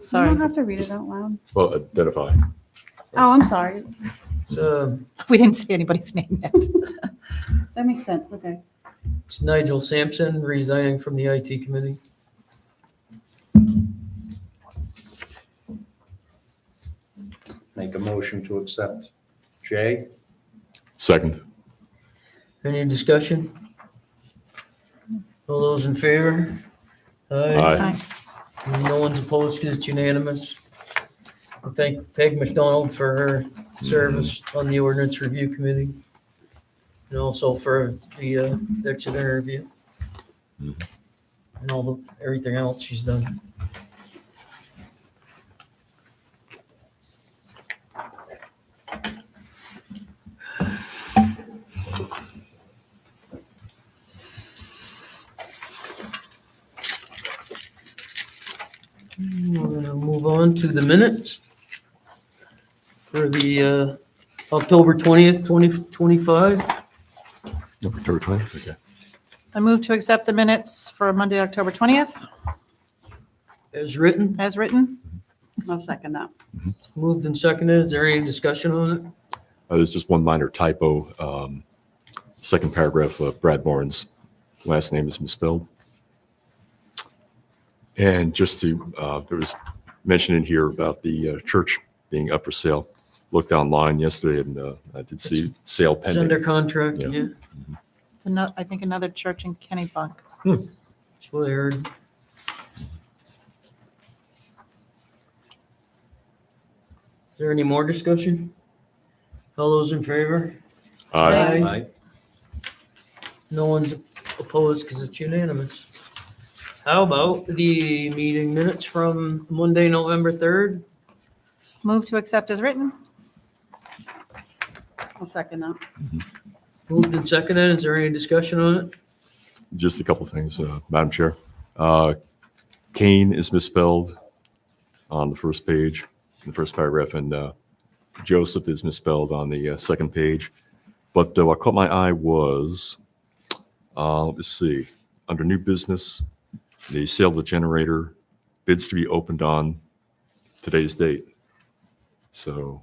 You Sorry, don't have to read it out loud. Well, identify. Oh, I'm sorry. It's uh, we didn't say anybody's name yet. That makes sense. Okay. it's Nigel Sampson resigning from the IT committee. Make a motion to accept J. Second. Any discussion? All those in favor? Aye. No one's opposed 'cause it's unanimous. I thank Peg McDonald for her service on the ordinance review committee and also for the uh, Exeter interview Mhm. and all the, everything else she's done. We're gonna move on to the minutes for the uh, October 20th, 2025. October 20th, okay. I move to accept the minutes for Monday, October 20th, As written, as written. I'll second that. moved and seconded. Is there any discussion on it? Uh, There's just one minor typo. um, Second paragraph of Brad Barnes' last name is misspelled. And just to, uh, there was mention in here about the uh, church being up for sale. Looked online yesterday and uh, I did see sale It's under pending. contract, Yeah. yeah. It's ano- I think another church in Kennebunk. That's what I heard. Is there any more discussion? All those in favor? Aye. Aye. Aye. No one's opposed because it's unanimous. How about the meeting minutes from Monday, November 3rd? Move to accept as written. I'll second that. Moved and seconded. Is there any discussion on it? Just a couple things, uh, Madam Chair. Uh, Kane is misspelled on the first page, in the first paragraph, and uh, Joseph is misspelled on the uh, second page. But uh, what caught my eye was, uh, let's see, under new business, the sale of the generator bids to be opened on today's date. So,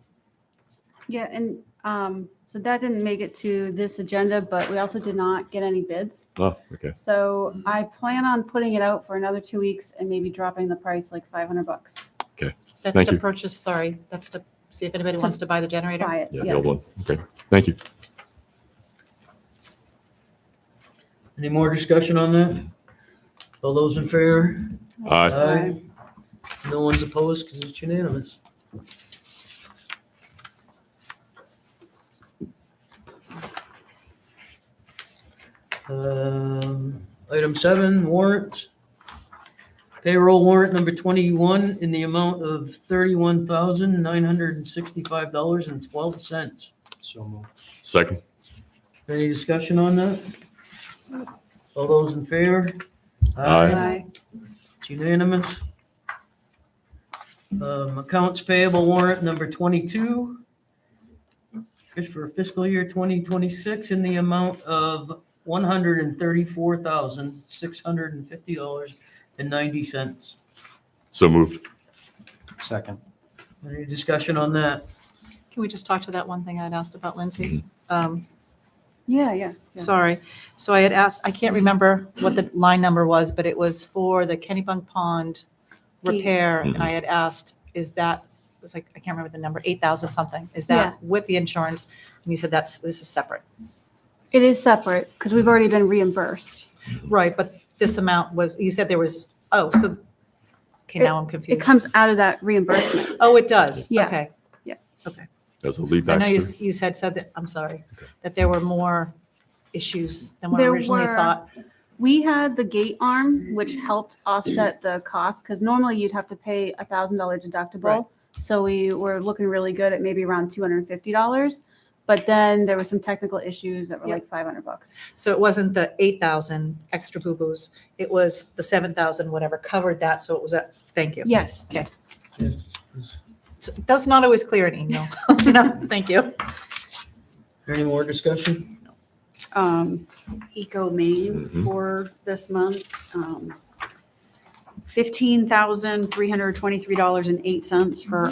Yeah, and um, so that didn't make it to this agenda, but we also did not get any bids. oh, okay. So I plan on putting it out for another two weeks and maybe dropping the price like five hundred bucks. That's Thank to you. purchase, sorry, that's to see if anybody wants to buy the generator. Buy it. Yeah, the old one. Okay, thank you. Any more discussion on that? All those in favor? Aye. Aye. No one's opposed because it's unanimous. Um, Item seven, warrants. Payroll warrant number 21 in the amount of $31,965.12. So moved. Second. Any discussion on that? All those in favor? Aye. Aye. It's unanimous. Um, Accounts payable warrant number 22 is for fiscal year 2026 in the amount of $134,650.90. So moved. Second. Any discussion on that? Can we just talk to that one thing I'd asked about Lindsay? Mm-hmm. Um, Yeah, yeah. yeah. Sorry. So I had asked, I can't remember what the line number was, but it was for the Kennybunk Pond repair. And I had asked, is that, it was like, I can't remember the number, 8,000 something. Is that with the insurance? And you said that's, this is separate. It is separate because we've already been reimbursed. Right, but this amount was, you said there was, oh, so, okay, now I'm It confused. comes out of that reimbursement. Oh, it does? Yeah. Okay. As a lead I know you, Baxter. s- you said, said that, I'm sorry, that there were more issues than what I There originally were. thought. We had the gate arm, which helped offset the cost, because normally you'd have to pay a thousand dollar Right. deductible. So we were looking really good at maybe around two hundred and fifty dollars, but then there were some technical issues that were Yep. like five hundred bucks. So it wasn't the 8,000 extra boo-boos, it was the 7,000, whatever covered that, so it was a, thank you. Yes, So That's not always clear in email. No, thank you. Any more discussion? um, Eco Maine Mhm. for this month. Um, $15,323.08 for